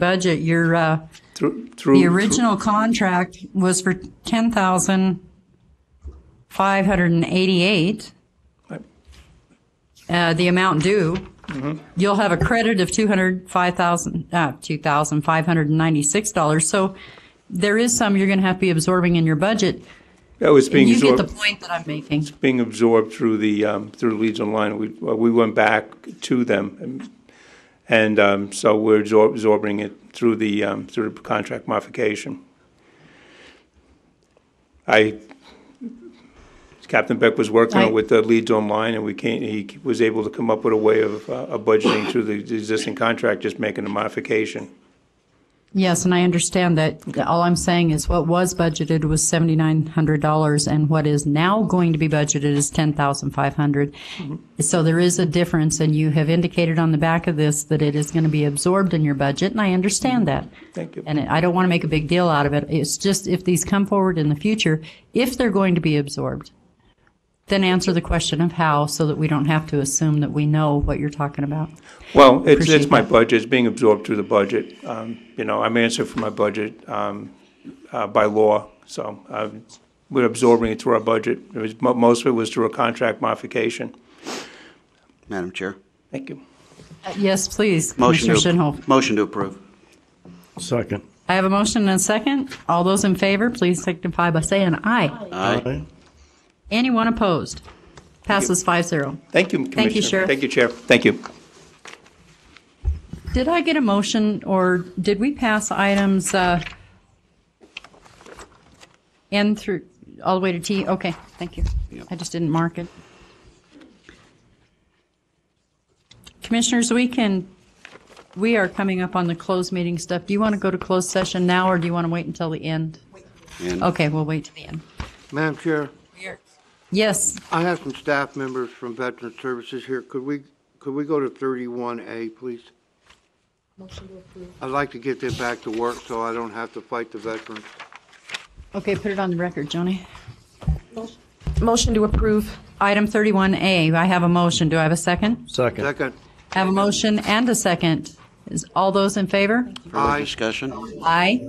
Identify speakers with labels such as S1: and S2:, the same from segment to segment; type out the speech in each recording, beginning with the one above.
S1: budget, your, uh,
S2: Through, through.
S1: the original contract was for ten thousand five hundred and eighty-eight.
S2: Right.
S1: Uh, the amount due,
S2: Mm-hmm.
S1: you'll have a credit of two hundred five thousand, uh, two thousand five hundred and ninety-six dollars. So there is some you're gonna have to be absorbing in your budget.
S2: That was being
S1: You get the
S2: absorbed,
S1: point that I'm making.
S2: being absorbed through the, um, through Legion line. We, well, we went back to them. and- And, um, so we're absor- absorbing it through the, um, through the contract modification. I, Captain Beck was
S1: I-
S2: working with the leads online and we can't, he was able to come up with a way of, uh, of budgeting through the existing contract, just making a modification.
S1: Yes, and I understand that. All I'm saying is what was budgeted was $7,900 and what is now going to be budgeted is 10,500.
S2: Mm-hmm.
S1: So there is a difference and you have indicated on the back of this that it is going to be absorbed in your budget and I understand that.
S2: Mm-hmm. Thank you.
S1: And I don't want to make a big deal out of it. It's just if these come forward in the future, if they're going to be absorbed, then answer the question of how so that we don't have to assume that we know what you're talking about.
S2: Well, it's, it's
S1: Appreciate
S2: my budget, it's being absorbed through the budget. Um, You know, I'm answering for my budget um, uh, by law, so um, we're absorbing it through our budget. It was, mo- most of it was through a contract modification.
S3: Madam Chair.
S2: Thank you.
S1: Uh, Yes, please,
S3: Motion
S1: Commissioner Shinholz.
S3: to, motion to approve.
S4: Second.
S1: I have a motion and a second. All those in favor, please signify by saying aye.
S3: Aye.
S1: Anyone opposed? Passes five zero.
S2: Thank you, Commissioner.
S1: Sheriff.
S2: Thank you, Chair. Thank you.
S1: Did I get a motion, or did we pass items uh, N through, all the way to T? Okay, thank you. I just didn't mark it. Commissioners, we can, we are coming up on the closed meeting stuff. Do you want to go to closed session now, or do you want to wait until the end?
S3: And-
S1: Okay, we'll wait till the end.
S5: Madam Chair,
S1: Yes,
S5: I have some staff members from Veteran Services here. Could we, could we go to 31A, please? I'd like to get them back to work so I don't have to fight the veterans.
S1: okay, put it on the record, Joni.
S6: Motion to approve.
S1: Item 31A, I have a motion. Do I have a second?
S4: Second.
S5: Second,
S1: I have a motion and a second. Is all those in favor?
S3: Further discussion?
S1: Aye.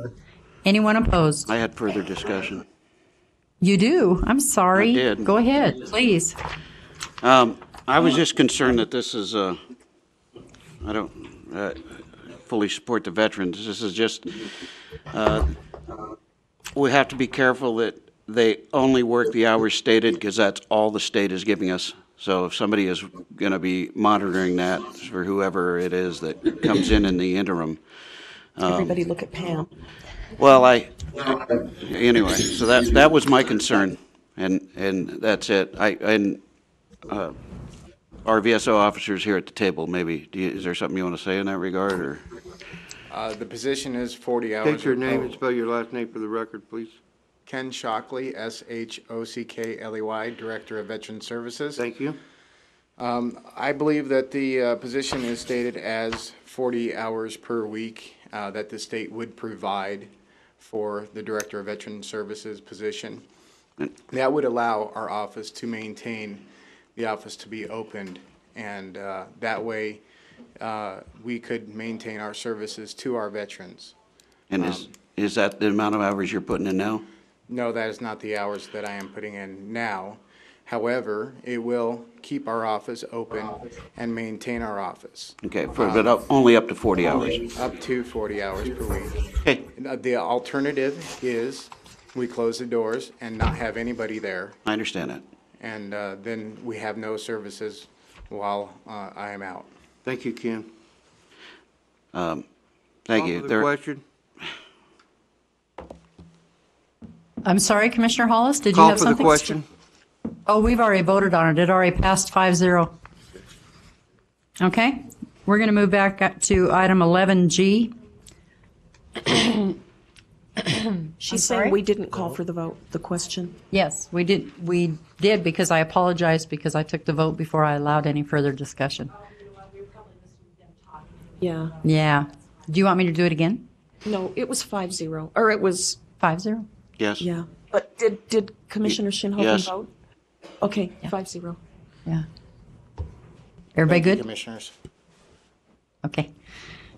S1: Anyone opposed?
S3: I had further discussion.
S1: You do. I'm sorry.
S3: I did.
S1: Go ahead, please.
S3: Um, I was just concerned that this is, uh, I don't, uh, fully support the veterans. This is just, uh, we have to be careful that they only work the hours stated because that's all the state is giving us. So if somebody is going to be monitoring that for whoever it is that comes in in the interim,
S6: Everybody look at Pam.
S3: Well, I, anyway, so that, that was my concern, and, and that's it. I, and, uh, RVSO officers here at the table, maybe, do you- is there something you want to say in that regard, or?
S7: Uh, The position is 40 hours.
S5: state your
S7: of
S5: name and
S7: pro-
S5: spell your last name for the record, please.
S7: Ken Shockley, S-H-O-C-K-L-E-Y, E Director of Veteran Services.
S5: Thank you.
S7: I believe that the uh, position is stated as 40 hours per week uh, that the state would provide for the Director of Veteran Services position. That would allow our office to maintain the office to be opened, and uh, that way, uh, we could maintain our services to our veterans.
S3: And is, is that the amount of hours you're putting in now?
S7: No, that is not the hours that I am putting in now. However, it will keep our office open and maintain our office
S3: Okay, for, but up- only up to forty hours.
S7: up to 40 hours per week.
S3: Okay,
S7: Uh, The alternative is we close the doors and not have anybody there,
S3: I understand that.
S7: and uh, then we have no services while uh, I am out.
S5: Thank you, Ken.
S3: Um, Thank you.
S5: Follow the
S3: There-
S5: question?
S1: I'm sorry, Commissioner Hollis, did you
S5: Call
S1: have
S5: for the
S1: something?
S5: question?
S1: Oh, we've already voted on it. It already passed five zero. Okay, we're going to move back up to item 11G.
S6: She's saying we didn't call for the vote, the question.
S1: Yes, we did, we did because I apologized because I took the vote before I allowed any further discussion.
S6: Yeah.
S1: Yeah. Do you want me to do it again?
S6: No, it was five zero, or it was,
S1: Five zero?
S3: Yes?
S6: yeah. But did, did Commissioner Shinhopin
S3: Yes.
S6: vote? Okay, five zero.
S1: Yeah. Everybody
S7: Thank you,
S1: good?
S7: Commissioners.
S1: Okay.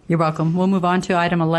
S1: You're welcome. We'll move on to item 11.